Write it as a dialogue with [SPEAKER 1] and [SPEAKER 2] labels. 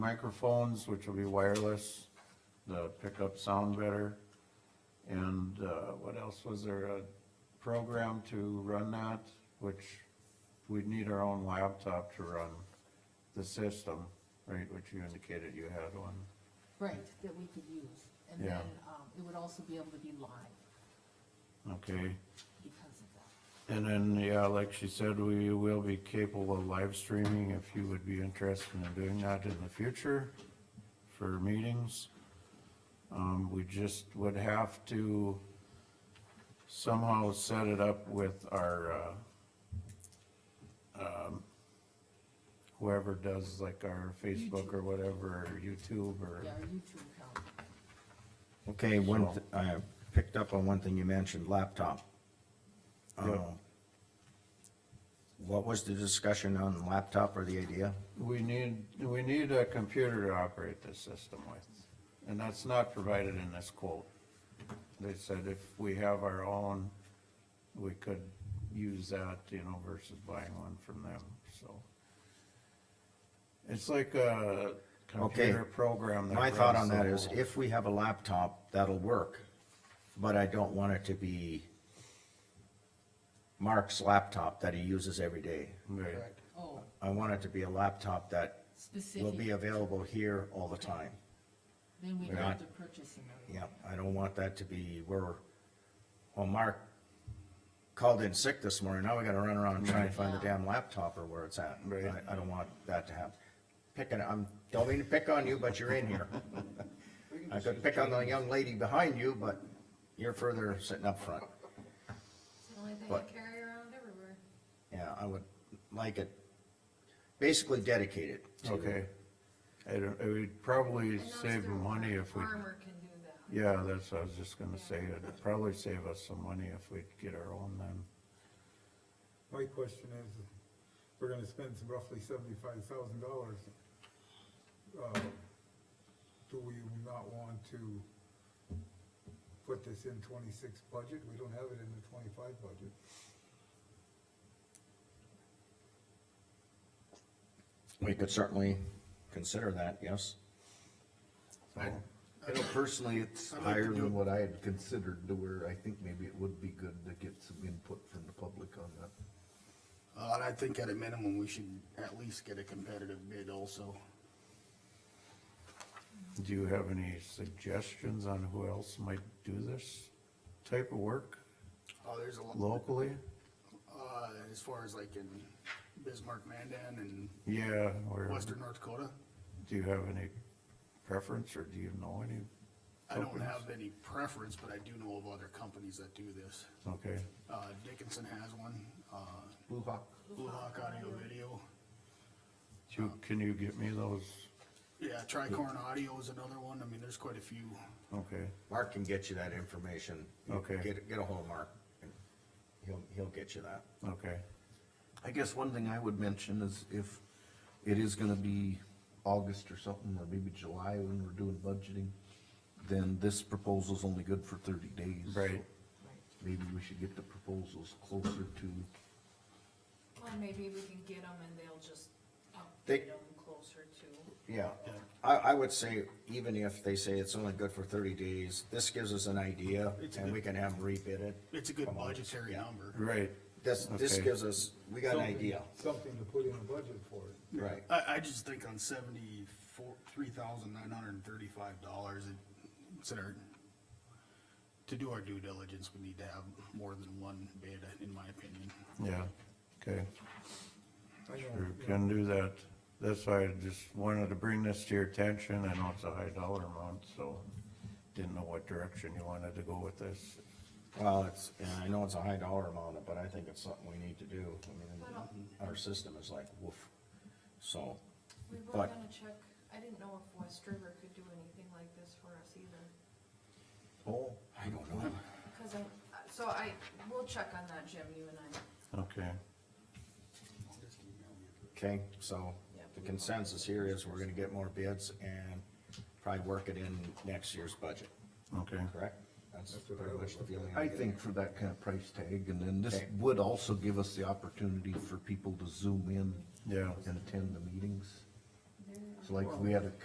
[SPEAKER 1] microphones, which will be wireless, to pick up sound better. And, uh, what else was there? A program to run that, which we'd need our own laptop to run the system, right, which you indicated you had one.
[SPEAKER 2] Right, that we could use, and
[SPEAKER 1] Yeah.
[SPEAKER 2] then, um, it would also be able to be live
[SPEAKER 1] Okay,
[SPEAKER 2] because of that.
[SPEAKER 1] and then, yeah, like she said, we will be capable of live streaming if you would be interested in doing that in the future for meetings. Um, we just would have to somehow set it up with our, uh, um, whoever does like our Facebook or whatever, or YouTube or,
[SPEAKER 2] Yeah, our YouTube account,
[SPEAKER 3] Okay, one, th- I picked up on one thing you mentioned, laptop.
[SPEAKER 1] Yep.
[SPEAKER 3] Um, What was the discussion on laptop or the idea?
[SPEAKER 1] We need, we need a computer to operate this system with, and that's not provided in this quote. They said if we have our own, we could use that, you know, versus buying one from them, so. It's like a computer program that
[SPEAKER 3] My thought
[SPEAKER 1] runs
[SPEAKER 3] on
[SPEAKER 1] the
[SPEAKER 3] that is
[SPEAKER 1] whole-
[SPEAKER 3] if we have a laptop, that'll work, but I don't want it to be Mark's laptop that he uses every day.
[SPEAKER 1] Right.
[SPEAKER 2] oh,
[SPEAKER 3] I want it to be a laptop that will be
[SPEAKER 2] specific,
[SPEAKER 3] available here all the time.
[SPEAKER 2] then we
[SPEAKER 3] Right.
[SPEAKER 2] have to purchase another.
[SPEAKER 3] Yeah, I don't want that to be where, well, Mark called in sick this morning, now we gotta run around and try and find the damn laptop or where it's at.
[SPEAKER 1] Right.
[SPEAKER 3] I, I don't want that to happen. Picking, I'm, don't mean to pick on you, but you're in here. I could pick on the young lady behind you, but you're further sitting up front.
[SPEAKER 4] It's the only thing
[SPEAKER 3] But-
[SPEAKER 4] I carry around everywhere.
[SPEAKER 3] Yeah, I would like it, basically dedicated to.
[SPEAKER 1] Okay. I don't, it would probably
[SPEAKER 4] I noticed
[SPEAKER 1] save
[SPEAKER 4] their
[SPEAKER 1] money if we,
[SPEAKER 4] Armor can do that.
[SPEAKER 1] yeah, that's, what I was just gonna say, it'd probably save us some money if we get our own then.
[SPEAKER 5] My question is, we're gonna spend roughly seventy-five thousand dollars. Uh, Do we not want to put this in twenty-six budget? We don't have it in the twenty-five budget.
[SPEAKER 3] We could certainly consider that, yes.
[SPEAKER 1] So-
[SPEAKER 6] I don't-
[SPEAKER 3] Personally, it's
[SPEAKER 6] I'd like
[SPEAKER 3] higher
[SPEAKER 6] to do
[SPEAKER 3] than what
[SPEAKER 6] what I had considered to where I think maybe it would be good to get some input from the public on that.
[SPEAKER 7] Uh, and I think at a minimum, we should at least get a competitive bid also.
[SPEAKER 1] Do you have any suggestions on who else might do this type of work
[SPEAKER 7] Uh, there's a lot,
[SPEAKER 1] locally?
[SPEAKER 7] uh, as far as like in Bismarck, Mandan and
[SPEAKER 1] Yeah, or
[SPEAKER 7] Western North Dakota.
[SPEAKER 1] do you have any preference or do you know any?
[SPEAKER 7] I don't have any preference, but I do know of other companies that do this.
[SPEAKER 1] Okay,
[SPEAKER 7] Uh, Dickinson has one, uh,
[SPEAKER 6] Blue Hawk,
[SPEAKER 7] Blue Hawk Audio Video.
[SPEAKER 1] Do you- can you get me those?
[SPEAKER 7] Yeah, Tricorn Audio is another one. I mean, there's quite a few.
[SPEAKER 1] Okay,
[SPEAKER 3] Mark can get you that information. You
[SPEAKER 1] Okay.
[SPEAKER 3] Get, get ahold of Mark, and he'll, he'll get you that.
[SPEAKER 1] okay,
[SPEAKER 6] I guess one thing I would mention is if it is gonna be August or something, or maybe July when we're doing budgeting, then this proposal's only good for thirty days.
[SPEAKER 1] right,
[SPEAKER 6] Maybe we should get the proposals closer to,
[SPEAKER 4] Well, maybe we can get them and they'll just
[SPEAKER 3] They-
[SPEAKER 4] update them closer to.
[SPEAKER 3] Yeah, I, I would say even if they say it's only good for thirty days, this gives us an idea
[SPEAKER 7] It's a
[SPEAKER 3] and
[SPEAKER 7] good-
[SPEAKER 3] we can have them rebid it.
[SPEAKER 7] It's a good budgetary number.
[SPEAKER 1] right.
[SPEAKER 3] This, this
[SPEAKER 1] Okay.
[SPEAKER 3] gives us, we got an idea,
[SPEAKER 5] Something to put in a budget for it.
[SPEAKER 3] right?
[SPEAKER 7] I, I just think on seventy-four, three thousand nine hundred and thirty-five dollars, it's in our, to do our due diligence, we need to have more than one bid, in my opinion.
[SPEAKER 1] Yeah, okay,
[SPEAKER 5] I
[SPEAKER 1] sure,
[SPEAKER 5] know, you know,
[SPEAKER 1] can do that. That's why I just wanted to bring this to your attention. I know it's a high dollar amount, so didn't know what direction you wanted to go with this.
[SPEAKER 3] Well, it's, and I know it's a high dollar amount, but I think it's something we need to do. I
[SPEAKER 4] Well-
[SPEAKER 3] mean, our system is like woof, so.
[SPEAKER 4] We were
[SPEAKER 3] But-
[SPEAKER 4] gonna check, I didn't know if West River could do anything like this for us either.
[SPEAKER 3] Oh. I don't know.
[SPEAKER 4] Because I, so I, we'll check on that, Jim, you and I.
[SPEAKER 1] Okay.
[SPEAKER 3] Okay, so the consensus here is we're gonna get more bids and probably work it in next year's budget,
[SPEAKER 1] Okay,
[SPEAKER 3] correct? That's
[SPEAKER 5] what I
[SPEAKER 3] pretty much the feeling.
[SPEAKER 6] I
[SPEAKER 3] I'm getting.
[SPEAKER 6] think for that kind of price tag, and then this
[SPEAKER 3] Okay.
[SPEAKER 6] would also give us the opportunity for people to zoom in
[SPEAKER 1] yeah,
[SPEAKER 6] and attend the meetings.
[SPEAKER 4] There are
[SPEAKER 6] like we had a